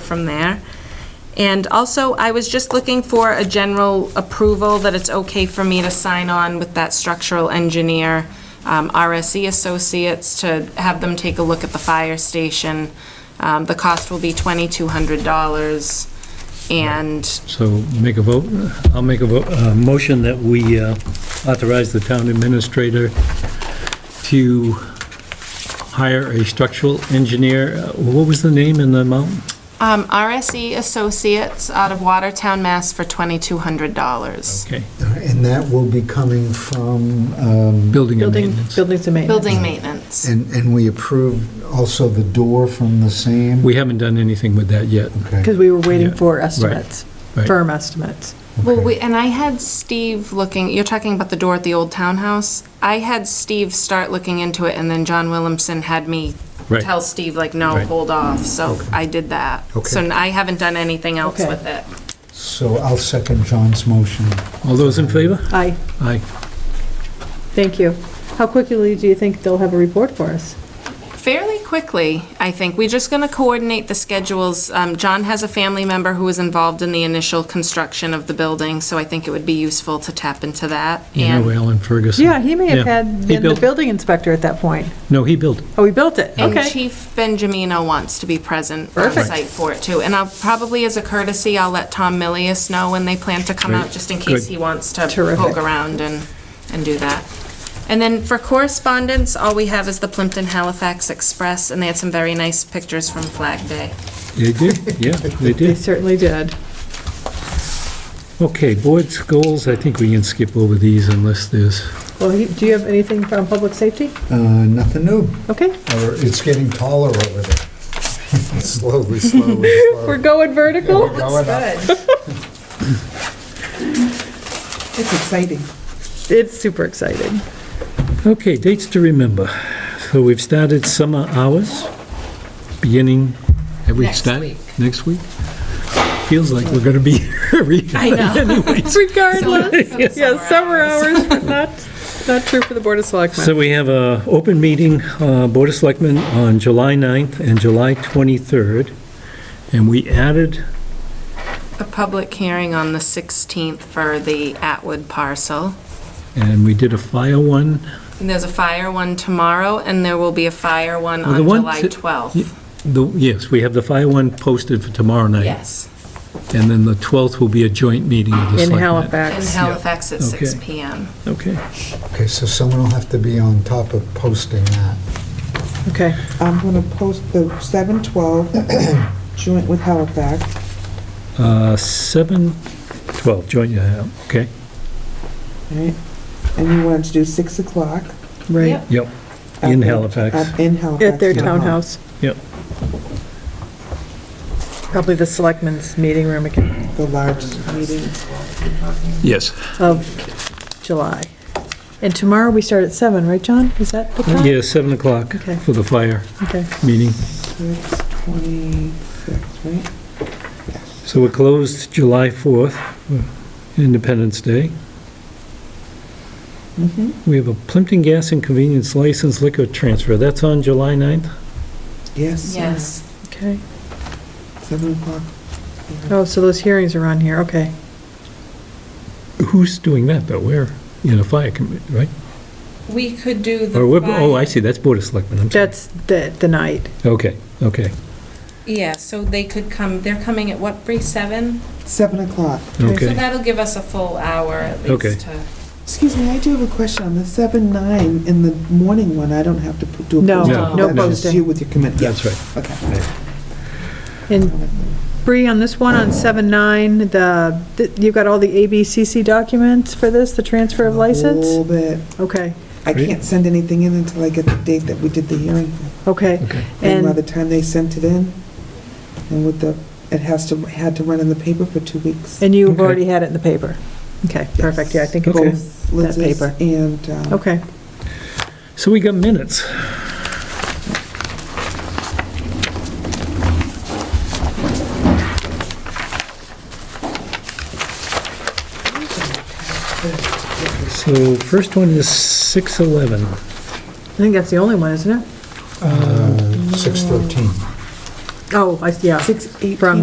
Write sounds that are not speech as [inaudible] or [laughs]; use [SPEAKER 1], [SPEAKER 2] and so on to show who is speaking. [SPEAKER 1] from there. And also, I was just looking for a general approval that it's okay for me to sign on with that structural engineer, um, RSE Associates, to have them take a look at the fire station. Um, The cost will be $2,200, and
[SPEAKER 2] So make a vote, I'll make a vote, a motion that we uh, authorize the town administrator to hire a structural engineer. Uh, What was the name and the amount?
[SPEAKER 1] um, RSE Associates out of Watertown, Mass. for $2,200.
[SPEAKER 2] Okay,
[SPEAKER 3] And that will be coming from, um,
[SPEAKER 2] building and
[SPEAKER 4] Building,
[SPEAKER 2] maintenance.
[SPEAKER 4] buildings and maintenance.
[SPEAKER 1] Building maintenance.
[SPEAKER 3] and and we approved also the door from the same?
[SPEAKER 2] We haven't done anything with that yet.
[SPEAKER 3] Okay.
[SPEAKER 4] Because we were waiting
[SPEAKER 2] Yeah,
[SPEAKER 4] for estimates,
[SPEAKER 2] right.
[SPEAKER 4] firm estimates.
[SPEAKER 1] Well,
[SPEAKER 3] Okay.
[SPEAKER 1] we, and I had Steve looking, you're talking about the door at the old townhouse? I had Steve start looking into it, and then John Williamson had me
[SPEAKER 2] Right.
[SPEAKER 1] tell Steve, like, no,
[SPEAKER 2] Right.
[SPEAKER 1] hold off, so I did that. So
[SPEAKER 3] Okay.
[SPEAKER 1] I haven't done anything else
[SPEAKER 4] Okay.
[SPEAKER 1] with it.
[SPEAKER 3] So I'll second John's motion.
[SPEAKER 2] All those in favor?
[SPEAKER 4] Aye,
[SPEAKER 2] Aye.
[SPEAKER 4] thank you. How quickly do you think they'll have a report for us?
[SPEAKER 1] Fairly quickly, I think. We're just going to coordinate the schedules. Um, John has a family member who was involved in the initial construction of the building, so I think it would be useful to tap into that.
[SPEAKER 2] You know
[SPEAKER 1] And,
[SPEAKER 2] Alan Ferguson?
[SPEAKER 4] Yeah, he may have
[SPEAKER 2] Yeah.
[SPEAKER 4] had
[SPEAKER 2] He
[SPEAKER 4] been the
[SPEAKER 2] built-
[SPEAKER 4] building inspector at that point.
[SPEAKER 2] No, he built.
[SPEAKER 4] Oh, he built it,
[SPEAKER 1] and
[SPEAKER 4] okay.
[SPEAKER 1] Chief Benjamino wants to be present on
[SPEAKER 4] Perfect.
[SPEAKER 1] site for it, too. And I'll, probably as a courtesy, I'll let Tom Millius know when they plan to come
[SPEAKER 2] Great.
[SPEAKER 1] out, just in case
[SPEAKER 2] Good.
[SPEAKER 1] he wants to
[SPEAKER 4] Terrific.
[SPEAKER 1] poke around and, and do that. And then for correspondence, all we have is the Plimpton Halifax Express, and they had some very nice pictures from Flag Day.
[SPEAKER 2] They did, yeah, they
[SPEAKER 4] He
[SPEAKER 2] did.
[SPEAKER 4] certainly did.
[SPEAKER 2] Okay, board's goals, I think we can skip over these unless there's,
[SPEAKER 4] Well, he- do you have anything from public safety?
[SPEAKER 3] Uh, Nothing new.
[SPEAKER 4] Okay,
[SPEAKER 3] Or It's getting taller over there. [laughs] Slowly, slowly,
[SPEAKER 4] we're
[SPEAKER 3] slowly.
[SPEAKER 4] going vertical?
[SPEAKER 3] We're going up.
[SPEAKER 5] It's exciting.
[SPEAKER 4] It's super exciting.
[SPEAKER 2] okay, dates to remember. So we've started summer hours, beginning, have we
[SPEAKER 1] Next
[SPEAKER 2] started?
[SPEAKER 1] week.
[SPEAKER 2] Next week? Feels like we're gonna be [laughs] here anyways.
[SPEAKER 4] Regardless, [laughs] yes, summer
[SPEAKER 1] Summer
[SPEAKER 4] hours, but not, not true for the Board of
[SPEAKER 2] So
[SPEAKER 4] Selectmen.
[SPEAKER 2] we have a open meeting, uh, Board of Selectmen, on July 9th and July 23rd, and we added
[SPEAKER 1] a public hearing on the 16th for the Atwood parcel.
[SPEAKER 2] And we did a fire one.
[SPEAKER 1] And there's a fire one tomorrow, and there will be a fire one
[SPEAKER 2] Well, the
[SPEAKER 1] on
[SPEAKER 2] one
[SPEAKER 1] July
[SPEAKER 2] to-
[SPEAKER 1] 12th.
[SPEAKER 2] The- Yes, we have the fire one posted for tomorrow night.
[SPEAKER 1] Yes,
[SPEAKER 2] And then the 12th will be a joint meeting of the
[SPEAKER 4] In
[SPEAKER 2] selectmen.
[SPEAKER 1] in
[SPEAKER 4] Halifax.
[SPEAKER 1] Halifax at six
[SPEAKER 2] Okay.
[SPEAKER 1] PM.
[SPEAKER 2] Okay.
[SPEAKER 3] Okay, so someone will have to be on top of posting that.
[SPEAKER 4] Okay,
[SPEAKER 5] I'm going to post the
[SPEAKER 2] [clears throat]
[SPEAKER 5] 712 joint with Halifax.
[SPEAKER 2] Uh, 7, 12, joint, yeah, okay.
[SPEAKER 5] right? And you wanted to do 6 o'clock.
[SPEAKER 4] right,
[SPEAKER 2] Yep.
[SPEAKER 5] at
[SPEAKER 2] In
[SPEAKER 5] the-
[SPEAKER 2] Halifax.
[SPEAKER 5] at- In Halifax.
[SPEAKER 4] at their townhouse.
[SPEAKER 2] Yep.
[SPEAKER 4] Probably the Selectmen's meeting room again.
[SPEAKER 5] The largest meeting.
[SPEAKER 2] Yes.
[SPEAKER 4] of July. And tomorrow we start at seven, right, John? Is that the time?
[SPEAKER 2] Yeah, 7 o'clock
[SPEAKER 4] Okay.
[SPEAKER 2] for the fire
[SPEAKER 4] Okay.
[SPEAKER 2] meeting.
[SPEAKER 5] 626, right?
[SPEAKER 2] So we're closed July 4th, for Independence Day.
[SPEAKER 5] Mhm.
[SPEAKER 2] We have a Plimpton Gas and Convenience License Liquor Transfer. That's on July 9th?
[SPEAKER 5] Yes.
[SPEAKER 1] Yes.
[SPEAKER 4] Okay.
[SPEAKER 5] 7 o'clock.
[SPEAKER 4] Oh, so those hearings are on here, okay.
[SPEAKER 2] Who's doing that, though? We're in a fire committee, right?
[SPEAKER 1] We could do the.
[SPEAKER 2] Or, we're- oh,
[SPEAKER 1] fire-
[SPEAKER 2] I see, that's Board of Selectmen, I'm sorry.
[SPEAKER 4] That's the, the night.
[SPEAKER 2] Okay, okay,
[SPEAKER 1] Yeah, so they could come, they're coming at what, Bree, seven?
[SPEAKER 5] 7 o'clock.
[SPEAKER 1] So
[SPEAKER 2] okay.
[SPEAKER 1] that'll give us a full hour at
[SPEAKER 2] Okay.
[SPEAKER 1] least to.
[SPEAKER 5] Excuse me, I do have a question. On the 7/9 in the morning one, I don't have to put- do a
[SPEAKER 4] No,
[SPEAKER 5] posting.
[SPEAKER 2] No,
[SPEAKER 4] no
[SPEAKER 5] That's just
[SPEAKER 4] posting.
[SPEAKER 5] you with your commitment.
[SPEAKER 2] That's right.
[SPEAKER 5] Okay.
[SPEAKER 4] And Bree, on this one, on seven nine, the, th- you've got all the ABCC documents for this, the transfer of
[SPEAKER 5] A
[SPEAKER 4] license?
[SPEAKER 5] little bit.
[SPEAKER 4] Okay,
[SPEAKER 5] I
[SPEAKER 2] Great.
[SPEAKER 5] can't send anything in until I get the date that we did the hearing.
[SPEAKER 4] okay.
[SPEAKER 2] Okay.
[SPEAKER 5] And by
[SPEAKER 4] And,
[SPEAKER 5] the time they sent it in, and with the, it has to, had to run in the paper for two weeks.
[SPEAKER 4] and you've
[SPEAKER 2] Okay.
[SPEAKER 4] already had it in the paper? Okay, perfect, yeah, I think it's,
[SPEAKER 2] Okay.
[SPEAKER 4] in-
[SPEAKER 5] Both Liz's
[SPEAKER 4] paper.
[SPEAKER 5] and, um,
[SPEAKER 4] okay.
[SPEAKER 2] So we got minutes. So first one is 6:11.
[SPEAKER 4] I think that's the only one, isn't it?
[SPEAKER 3] Uh, 6:13.
[SPEAKER 5] Oh, I- yeah.
[SPEAKER 4] Six, eighteen.
[SPEAKER 5] From